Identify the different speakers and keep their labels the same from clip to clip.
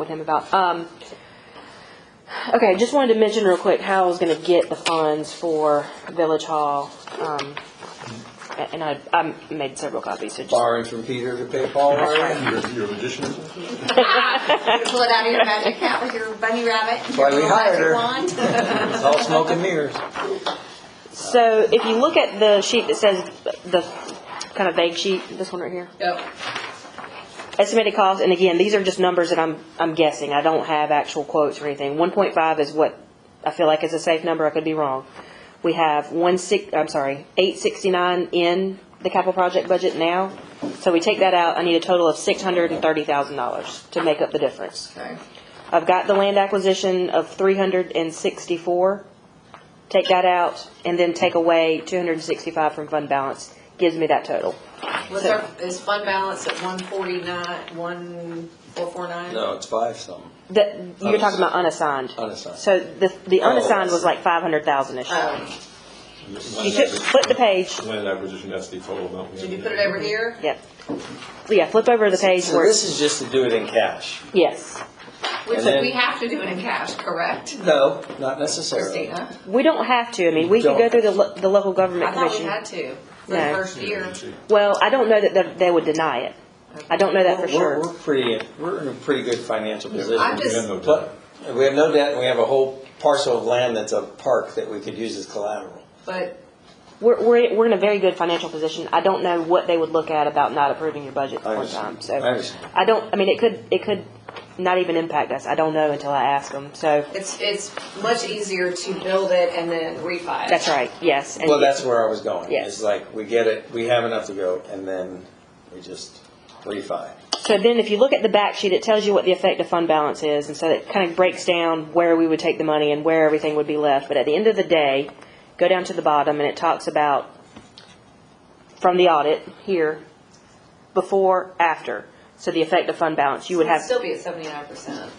Speaker 1: with him about. Um, okay, just wanted to mention real quick how I was going to get the funds for Village Hall. Um, a- and I, I made several copies, so just.
Speaker 2: borrowing from Peter to pay Paul, right?
Speaker 3: Your, your magician?
Speaker 4: You Pull it out of your magic hat with your bunny rabbit. and
Speaker 2: Why we
Speaker 4: your little
Speaker 2: hired her.
Speaker 4: magic wand.
Speaker 2: It's all smoke and mirrors.
Speaker 1: So if you look at the sheet that says the kind of vague sheet, this one right here.
Speaker 4: Yep.
Speaker 1: Estimated cost, and again, these are just numbers that I'm, I'm guessing, I don't have actual quotes or anything. One point five is what I feel like is a safe number, I could be wrong. We have one six, I'm sorry, eight sixty-nine in the capital project budget now. So we take that out, I need a total of six hundred and thirty thousand dollars to make up the difference.
Speaker 4: Okay.
Speaker 1: I've got the land acquisition of three hundred and sixty-four. Take that out, and then take away two hundred and sixty-five from fund balance, gives me that total.
Speaker 4: What's our, is fund balance at one forty-nine, one four four nine?
Speaker 2: No, it's five something.
Speaker 1: The, you're talking about unassigned.
Speaker 2: Unassigned. Oh.
Speaker 1: So the, the unassigned was like five hundred thousand-ish.
Speaker 4: Oh,
Speaker 1: You took, flip the page,
Speaker 3: Land acquisition, that's the total amount. we
Speaker 4: did
Speaker 3: have.
Speaker 4: you put it over here?
Speaker 1: yep. Yeah, flip over the page
Speaker 2: So
Speaker 1: where,
Speaker 2: this
Speaker 1: it's-
Speaker 2: is just to do it in cash?
Speaker 1: yes.
Speaker 4: Which
Speaker 2: And then-
Speaker 4: we have to do it in cash, correct,
Speaker 2: No, not necessarily.
Speaker 4: Christina?
Speaker 1: We don't have to, I mean, we could go
Speaker 2: Don't.
Speaker 1: through the, lo- the local
Speaker 4: I
Speaker 1: government
Speaker 4: thought we
Speaker 1: commission.
Speaker 4: had to for the
Speaker 1: No.
Speaker 4: first year.
Speaker 1: Well, I don't know that they, they would deny it. I don't know that for
Speaker 2: We're-
Speaker 1: sure.
Speaker 2: We're pretty, we're in a pretty good financial
Speaker 4: I'm
Speaker 2: position.
Speaker 3: We have
Speaker 4: just,
Speaker 3: no debt.
Speaker 2: But we have no debt, and we have a whole parcel of land that's a park that we could use as collateral.
Speaker 4: but
Speaker 1: We're, we're, we're in a very good financial position. I don't know what they would look at about not approving your budget
Speaker 2: I
Speaker 1: one
Speaker 2: understand.
Speaker 1: time, so.
Speaker 2: I understand.
Speaker 1: I don't, I mean, it could, it could not even impact us. I don't know until I ask them, so.
Speaker 4: it's, it's much easier to build it and then refi it.
Speaker 1: That's right, yes. and
Speaker 2: Well, that's where I was going.
Speaker 1: Yes.
Speaker 2: It's like, we get it, we have enough to go, and then we just refi.
Speaker 1: So then if you look at the back sheet, it tells you what the effective fund balance is, and so it kind of breaks down where we would take the money and where everything would be left. But at the end of the day, go down to the bottom, and it talks about from the audit here, before, after. So the effective fund balance, you would
Speaker 4: It'd
Speaker 1: have,
Speaker 4: still be at seventy-nine percent.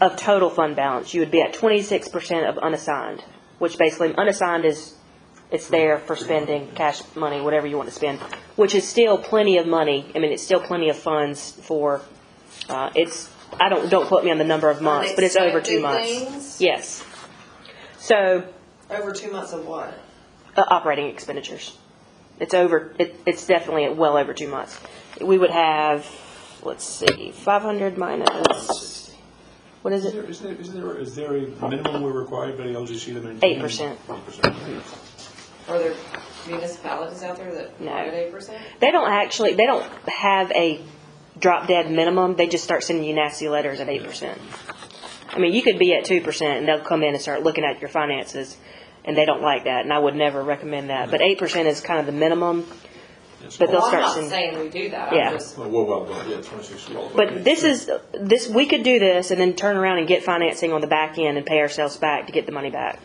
Speaker 1: of total fund balance, you would be at twenty-six percent of unassigned, which basically, unassigned is, it's there for spending, cash money, whatever you want to spend, which is still plenty of money. I mean, it's still plenty of funds for, uh, it's, I don't, don't quote me on the number of months, but it's over two
Speaker 4: Unexpected
Speaker 1: months.
Speaker 4: things?
Speaker 1: Yes. So,
Speaker 4: Over two months of what?
Speaker 1: uh, operating expenditures. It's over, it, it's definitely well over two months. We would have, let's see, five hundred minus, what is
Speaker 3: Is
Speaker 1: it?
Speaker 3: there, is there, is there, is there a minimum we're required by the LGC to maintain?
Speaker 1: 8%.
Speaker 3: Eight percent.
Speaker 4: Are there municipalities out there that
Speaker 1: No.
Speaker 4: are at eight percent?
Speaker 1: They don't actually, they don't have a drop dead minimum, they just start sending you nasty letters at eight percent. I mean, you could be at two percent and they'll come in and start looking at your finances, and they don't like that, and I would never recommend that, but eight percent is kind of the minimum. But they'll
Speaker 4: Well, I'm
Speaker 1: start
Speaker 4: not
Speaker 1: seeing,
Speaker 4: saying we do that,
Speaker 1: Yeah.
Speaker 4: I'm just,
Speaker 3: Well, well, well, done. yeah, twenty-six. well, okay.
Speaker 1: but this is, this, we could do this and then turn around and get financing on the back end and pay ourselves back to get the money back.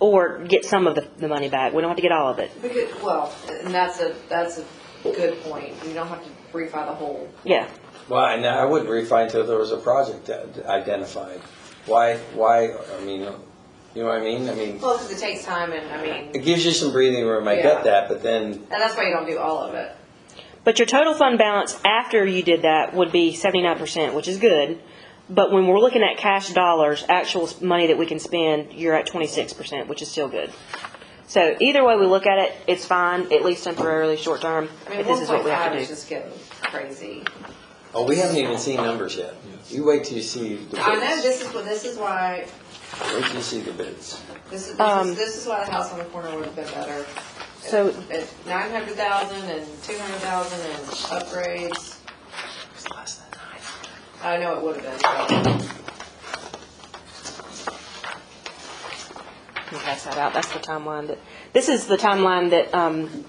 Speaker 1: Or get some of the, the money back, we don't have to get all of it,
Speaker 4: we could, well, and that's a, that's a good point, you don't have to refi the whole.
Speaker 1: yeah.
Speaker 2: Well, and I wouldn't refi until there was a project identified. Why, why, I mean, you know what I mean? I mean,
Speaker 4: Well, because it takes time and, I mean,
Speaker 2: it
Speaker 4: and
Speaker 2: gives you some breathing room, I
Speaker 4: Yeah.
Speaker 2: get that, but then,
Speaker 4: that's why you don't do all of it.
Speaker 1: But your total fund balance after you did that would be seventy-nine percent, which is good. But when we're looking at cash dollars, actual s- money that we can spend, you're at twenty-six percent, which is still good. So either way we look at it, it's fine, at least temporarily, short term,
Speaker 4: I mean,
Speaker 1: if this
Speaker 4: one
Speaker 1: is what
Speaker 4: point
Speaker 1: we have
Speaker 4: five
Speaker 1: to
Speaker 4: is
Speaker 1: do.
Speaker 4: just getting crazy.
Speaker 2: oh, we haven't even seen numbers yet. You wait till you see the bids.
Speaker 4: I know, this is, what- this is why,
Speaker 2: Wait till you see the bids.
Speaker 4: this is, this
Speaker 1: Um,
Speaker 4: is, this is why the house on the corner would have been better.
Speaker 1: So-
Speaker 4: At nine hundred thousand and two hundred thousand and upgrades, I know it would have been, but
Speaker 1: Can pass that out, that's the timeline that, this is the timeline that, um,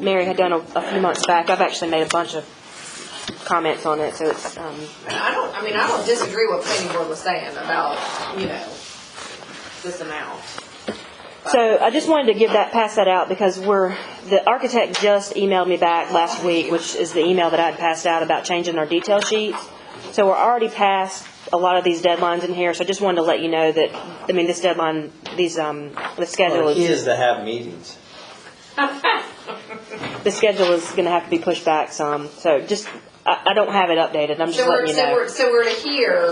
Speaker 1: Mary had done a, a few months back. I've actually made a bunch of comments on it, so it's, um,
Speaker 4: I don't, I mean, I don't disagree with what planning board was saying about, you know, this amount.
Speaker 1: So I just wanted to give that, pass that out because we're, the architect just emailed me back last week, which is the email that I had passed out about changing our detail sheets. So we're already past a lot of these deadlines in here, so I just wanted to let you know that, I mean, this deadline, these, um, the schedule
Speaker 2: Well, The key
Speaker 1: is,
Speaker 2: is to have meetings.
Speaker 1: the schedule is gonna have to be pushed back some. So just, I, I don't have it updated, I'm just
Speaker 4: So we're,
Speaker 1: letting you know.
Speaker 4: so we're, so we're to hear